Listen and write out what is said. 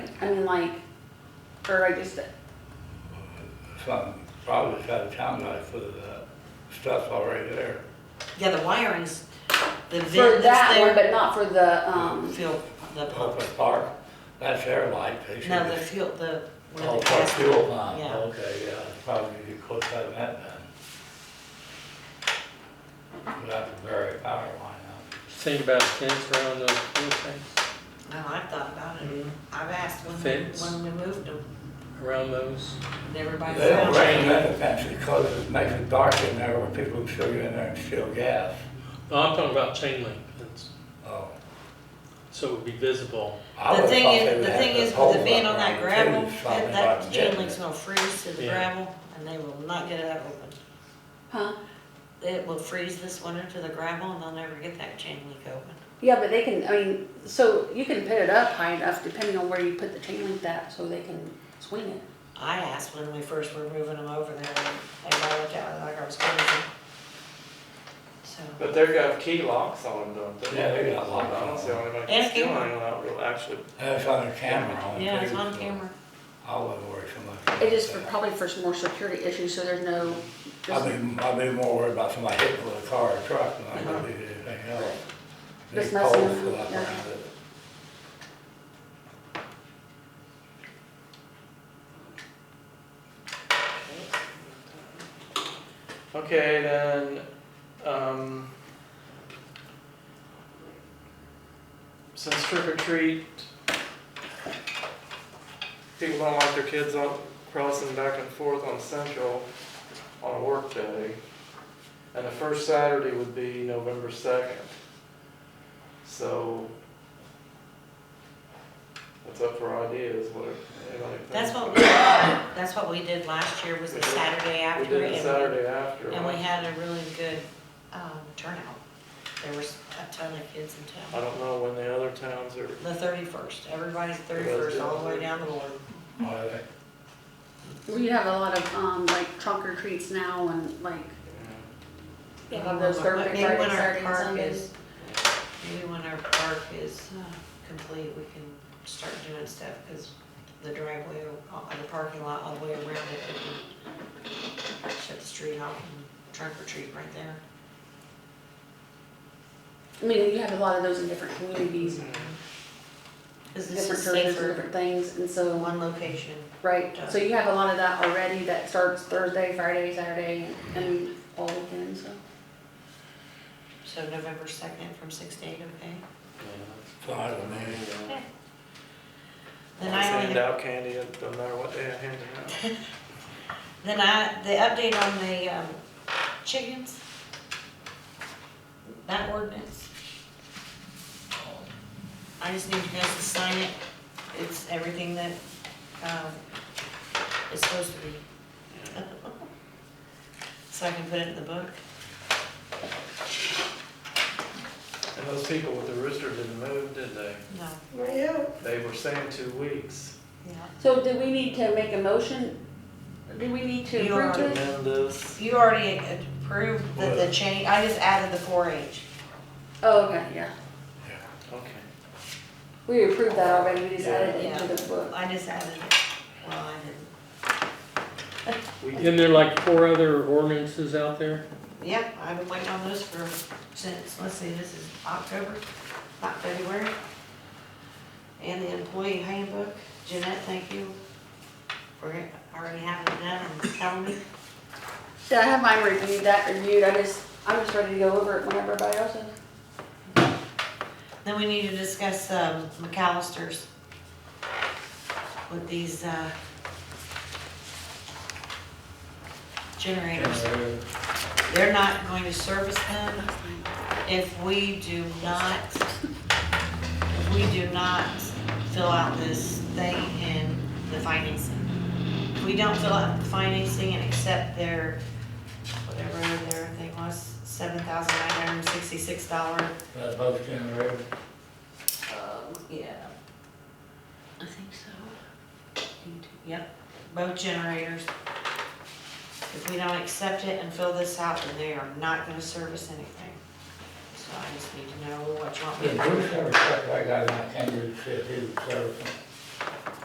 I mean, like, or I just, Some, probably out of town, I put the stuff's already there. Yeah, the wiring's, for the vent that's that one, there, but not for the, um, fuel, the Up pump. at Park, that's their light, they should. No, the fuel, the, where Oh, the Park gas. Fuel oh. Line, Yeah. okay, yeah, probably you could have that then. That's a very power line Think about a fence around those little things, No, I've thought about Mm-hmm. it. I've asked when, Fence. when we moved them, around those. and out. everybody They don't said, rain that fence because it makes it dark in there where people can still get in there and steal gas. No, I'm talking about chain link fence, Oh, so it would be visible. I The would've thing thought they is, would the have thing to is hold with it being up on that around the gravel, trees, something that, that like chain that. link's gonna freeze to the Yeah. gravel, and they will not get that open. huh? It will freeze this winter to the gravel, and they'll never get that chain link open. Yeah, but they can, I mean, so you can put it up high enough depending on where you put the chain link that, so they can swing it. I asked when we first were moving them over there, and everybody looked at me like I was crazy. So, But they've got key locks on them, don't they? Yeah, they got locks on I don't see how anybody And a can steal camera. anything without real, actually. That's on the camera on the yeah, it's table, on so camera. I wouldn't worry so much. about It is for, that. probably for some more security issues, so there's no, I'd just, be, I'd be more worried about somebody hitting with a car or truck than I would be anything else. Big Uh-huh. Just messing poles with up them, yeah. around it. Okay, then, um, since trick or treat, people don't like their kids on, crossing back and forth on Central on a work day. And the first Saturday would be November second. So, that's up for ideas, what anybody thinks. That's what we, that's what we did last year, was the Saturday We after. did and it Saturday after. And we had a really good, um, turnout. There was a ton of kids in I town. don't know when the other towns are. The thirty-first, everybody's thirty-first, all the way down the board. Why they- we have a lot of, um, like trunk or treats now and like, you have those Thursday, Maybe Friday, when our Saturday, and park Sunday. is, maybe when our park is uh, complete, we can start doing stuff, because the driveway, uh, the parking lot, all the way around it, we can shut the street off and trunk or treat right there. I mean, you have a lot of those in different communities, Mm-hmm. Because this different is churches and safer different things, and than so, uh, one location. right, so you have a lot of that already that starts Thursday, Friday, Saturday, and all weekend, so. So November second from six to eight, okay? so I don't know. Then Always I only hand out candy, no matter what they hand it out. Then I, the update on the um, chickens, that ordinance. I just need you guys to sign it. It's everything that um, is supposed to be. So I can put it in the book. And those people with the rooster didn't move, did they? No. They were saying two weeks. Yeah. So do we need to make a motion? Do we need to You approve already- this? Amend this. You already approved the, the change, I just added the four H. Oh, okay, yeah. Okay. We approved that already, we just added it to the book. I just added it. Well, I didn't. We did, Isn't there like four other ordinances out there? Yep, I've been waiting on this for, since, let's see, this is October, not February. And the employee handbook, Jeanette, thank you for already having that and telling me. Yeah, I have mine reviewed, that reviewed, I just, I'm just ready to go over it whenever everybody else is. Then we need to discuss, um, McAllister's with these, uh, generators. They're not going to service them if we do not, if we do not fill out this thing in the financing. If we don't fill out the financing and accept their, whatever their thing was, seven thousand nine hundred and sixty-six dollar, That's both generated. um, yeah. I think so. Yep, both generators. If we don't accept it and fill this out, then they are not gonna service anything. So I just need to know what you want me Did to do. Bruce ever check that guy when I came to see if he was servicing?